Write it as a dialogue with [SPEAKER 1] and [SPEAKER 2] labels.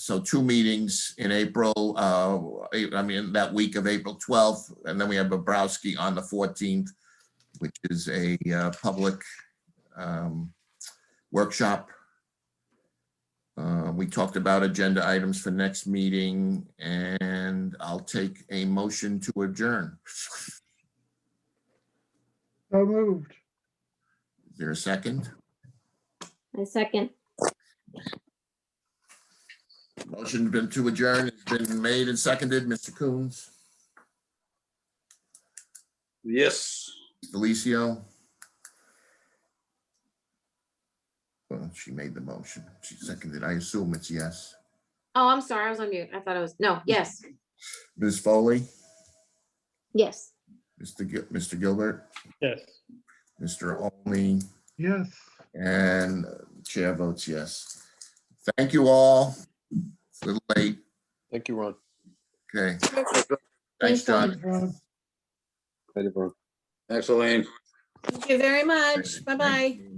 [SPEAKER 1] So two meetings in April, uh, I I mean, that week of April 12th, and then we have Bobrowski on the 14th, which is a uh, public um, workshop. Uh, We talked about agenda items for next meeting, and I'll take a motion to adjourn.
[SPEAKER 2] So moved.
[SPEAKER 1] Is there a second?
[SPEAKER 3] I second.
[SPEAKER 1] Motion been to adjourn has been made and seconded. Mr. Coons,
[SPEAKER 4] Yes.
[SPEAKER 1] Delicio. Well, she made the motion. She seconded. I assume it's yes.
[SPEAKER 3] Oh, I'm sorry. I was on mute. I thought I was, no, yes,
[SPEAKER 1] Ms. Foley,
[SPEAKER 3] yes.
[SPEAKER 1] Mr. Gil- Mr. Gilbert,
[SPEAKER 5] Yes.
[SPEAKER 1] Mr. Only,
[SPEAKER 2] Yes.
[SPEAKER 1] and chair votes yes. Thank you all. It's a little late.
[SPEAKER 4] Thank you, Ron.
[SPEAKER 1] Okay.
[SPEAKER 3] Thanks,
[SPEAKER 1] Thanks, John.
[SPEAKER 2] Ron.
[SPEAKER 4] Thanks, Elaine.
[SPEAKER 3] Thank you very much. Bye-bye.
[SPEAKER 1] Thank you.